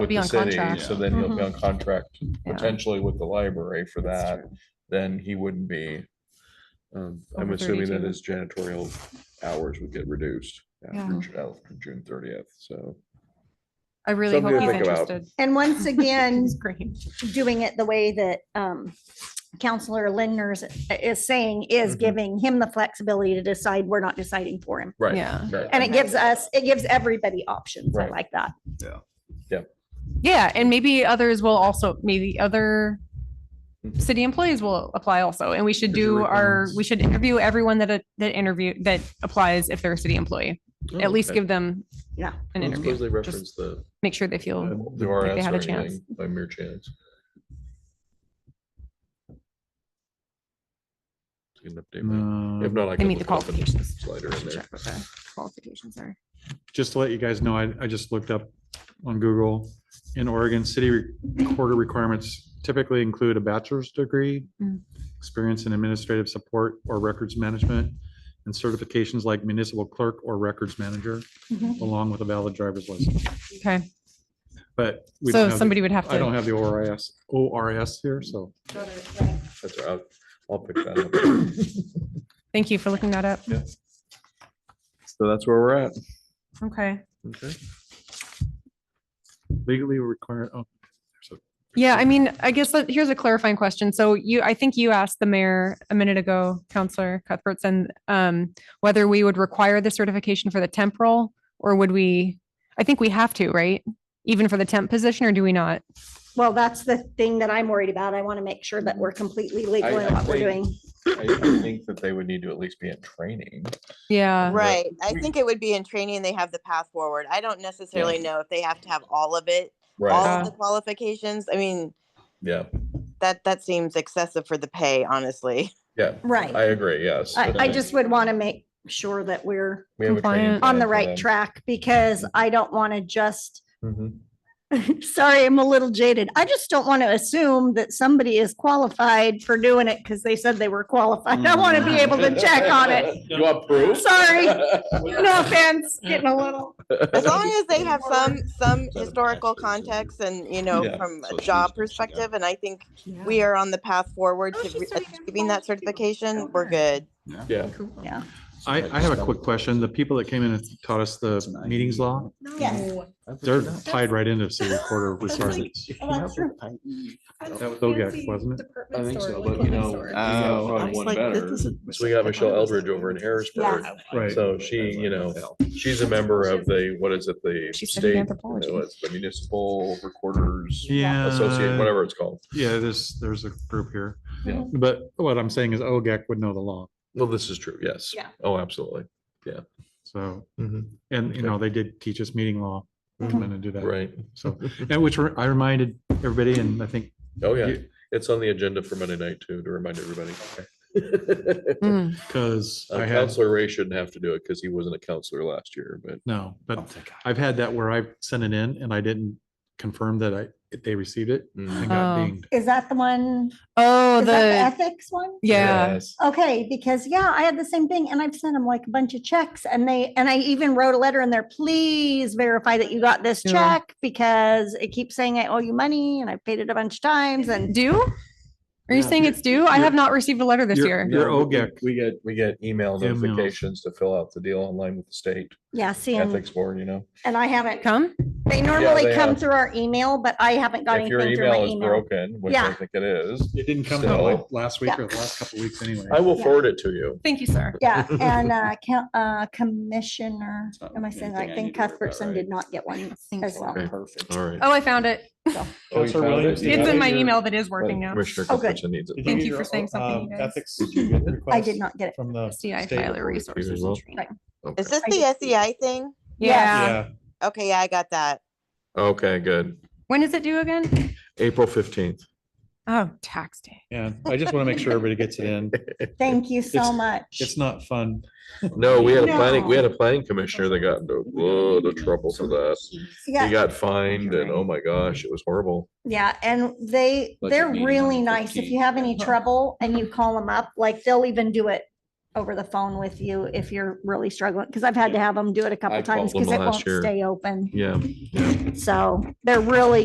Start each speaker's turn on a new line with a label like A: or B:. A: with
B: Be
A: the
B: on
A: city,
B: contract.
A: so then he'll be on contract
B: Yeah.
A: potentially with the library for
B: That's
A: that,
B: true.
A: then he wouldn't be. Um, I'm
B: Over
A: assuming that
B: 32.
A: his janitorial hours would get reduced after
B: Yeah.
A: Ju- after June thirtieth, so.
B: I really
A: Something to
B: hope he's
A: think about.
B: interested.
C: And once again,
B: He's great.
C: doing it the way that um, Counselor Lindner's uh, is saying is
A: Mhm.
C: giving him the flexibility to decide. We're not deciding for him.
B: Yeah.
C: And it gives us, it gives everybody options. I
A: Right.
C: like that.
B: Yeah. And maybe others will also, maybe other
A: Mhm.
B: city employees will apply also. And we should
A: There's your
B: do our,
A: requirements.
B: we should interview everyone that, that interview, that applies if they're a city employee.
A: Mm, Oh,
B: At least give them
C: Yeah.
B: an interview.
A: They
B: Just
A: reference the.
B: Make sure they
A: uh,
B: feel,
A: the
B: like they
A: RS
B: had
A: or
B: a chance.
A: anything By mere chance. You can update that. If
D: Um,
A: not, I
B: they
A: can
B: meet the
A: look it up and
B: qualifications.
A: slide her
B: I
A: in
B: should
A: there.
B: check what the Qualifications are.
D: Just to let you guys know, I, I just looked up on Google. In Oregon, city recorder requirements typically include a bachelor's degree,
B: Mm.
D: experience in administrative support or records management, and certifications like municipal clerk or records manager,
C: Mhm.
D: along with a valid driver's license.
B: Okay.
D: But we don't
B: So
D: have the-
B: somebody would have
D: I don't
B: to,
D: have the ORIS, ORIS here, so.
A: That's all right. I'll I'll pick that up.
B: thank you for looking that up.
A: So that's where we're at.
B: Okay.
A: Okay.
D: Legally required, oh,
B: Yeah, I mean, I guess that here's a clarifying question. So you, I think you asked the mayor a minute ago, Counselor Cuthbertson, um, whether we would require the certification for the temporal or would we, I think we have to, right? Even for the temp position or do we not?
C: Well, that's the thing that I'm worried about. I want to make sure that we're completely legal
A: Mm-hmm. I-
C: in
A: I
C: what we're
A: think-
C: doing.
A: I I think that they would need to at least be in training.
B: Yeah,
A: Right.
E: Right. I think it would be in training, they have the path forward. I don't necessarily know if they have to have all of it, all
A: Right,
B: Uh,
E: of the qualifications. I mean,
A: yeah,
E: that, that seems excessive for the pay, honestly.
A: yeah, I
C: Right.
A: agree, yes.
C: I,
A: but
C: I just would want to make sure that we're
A: we have a training
B: Compliant.
A: plan
C: on the
A: for
C: right
A: them.
C: track because
A: Mm-hmm.
C: I don't want to just
A: Mhm.
C: Sorry, I'm a little jaded. I just don't want to assume that somebody is qualified for doing it because they said they were qualified. I want to be able to check on it.
A: You want proof?
C: Sorry. No offense, getting a little.
E: As long as they have some, some
A: Set of
E: historical
A: masters and-
E: context and, you know,
A: Yeah,
E: from
A: so
E: a
A: it's
E: job
A: used to something
E: perspective, and I think we are on the path forward
C: Oh,
E: to
C: she's
E: re-
C: doing it in
E: achieving that
C: Polish, too.
E: certification,
C: Don't
E: we're
C: worry.
E: good.
A: Yeah.
C: Yeah.
D: I, I have a quick question. The people that came in and taught us the meetings law,
C: Yes.
D: they're tied right into city recorder requirements. That was OGAC, wasn't it?
A: I think so, but you know. we got
F: Oh, I
A: probably
F: was
A: one
F: like,
A: better.
F: this doesn't.
A: So we got Michelle Eldridge over in Harrisburg.
D: Right.
A: So she, you know, she's a member of the, what is it, the
B: She studied
A: state, you
B: anthropology.
A: know, it's the municipal recorders
D: Yeah.
A: associate, whatever it's called.
D: Yeah, there's, there's a group here.
A: Yeah.
D: But what I'm saying is OGAC would know the law.
A: Well, this is true, yes.
C: Yeah.
A: Oh, absolutely,
D: So,
A: Mhm.
D: and you know, they did teach us meeting law. Come in and do that.
A: Mm-hmm. right.
D: So, and which re- I reminded everybody and I think
A: Oh, yeah.
D: you-
A: It's on the agenda for Monday night too, to remind everybody.
B: Mm.
D: because
A: Uh,
D: I had,
A: Counselor Ray shouldn't have to do it because he wasn't a counselor last year, but
D: no, but I've had that where I sent it in and I didn't confirm that I, if they received it
A: mm,
D: and got
B: Oh.
D: dinged.
C: Is that the one?
B: Oh,
C: Is that the
B: the,
C: ethics one?
B: yeah.
A: yes.
C: Okay, because yeah, I had the same thing and I've sent them like a bunch of checks and they, and I even wrote a letter in there, please verify that you got this
B: Yeah.
C: check because it keeps saying I owe you money and I paid it a bunch of times and
B: Due? Are you
A: Yeah.
B: saying it's due? I have
D: You're-
B: not received a letter this
D: you're-
B: year.
D: Your
A: No, but we-
D: OGEC.
A: We get, we get email
D: Emails.
A: notifications to fill out the deal online with the state
C: yeah, see, and
A: ethics board, you know?
C: and I haven't
B: Come?
C: They normally
A: they
C: come
A: have.
C: through our email, but I haven't got
A: If your
C: anything through my
A: email is
C: email.
A: broken, which I
C: Yeah.
A: think it is,
D: It didn't come
A: So-
D: out like last week
C: Yeah.
D: or the last couple of weeks anyway.
A: I will
C: Yeah.
A: forward it to you.
B: Thank you, sir.
C: Yeah, and uh, coun- uh, Commissioner,
F: not
C: am I saying, that? I
F: anything I
C: think
F: need to worry about,
C: Cuthbertson
F: right?
C: did not get one as well.
A: Okay.
F: Perfect.
A: All right.
B: Oh, I found it.
A: Oh, you
D: Counselor
A: found
D: Williams,
A: it? You
B: It's
A: got
B: in
A: it?
B: my
A: You're-
B: email that is
A: Well,
B: working now.
A: Commissioner
C: Oh, good.
A: Cuthbertson needs it.
B: you Thank get your, for saying something, um, you guys. ethics
C: I did not get it.
D: From the.
B: SDI Tyler Resources
A: well.
B: and Training.
A: Okay.
E: Is this
C: I
E: the
C: just-
E: SEI thing?
B: Yeah.
E: Okay, yeah, I got that.
A: Okay, good.
B: When is it due again?
A: April fifteenth.
B: Oh, tax day.
D: Yeah, I just want to make sure everybody gets it in.
C: Thank you so
D: It's-
C: much.
D: It's not fun.
A: No, we had a planning, we
C: No.
A: had a planning commissioner that got into a lot of trouble for that. He
C: Yeah,
A: got fined and oh my gosh, it was horrible.
C: yeah, and they,
F: Budget
C: they're
F: meeting on
C: really
F: the Uh-huh.
C: nice. If you
F: 15th.
C: have any trouble and you call them up, like they'll even do it over the phone with you if you're really struggling, because I've had to have them do it a couple
A: I
C: times
A: called
C: because
A: them
C: it
A: last
C: won't
A: year.
C: stay open.
A: Yeah.
C: So they're really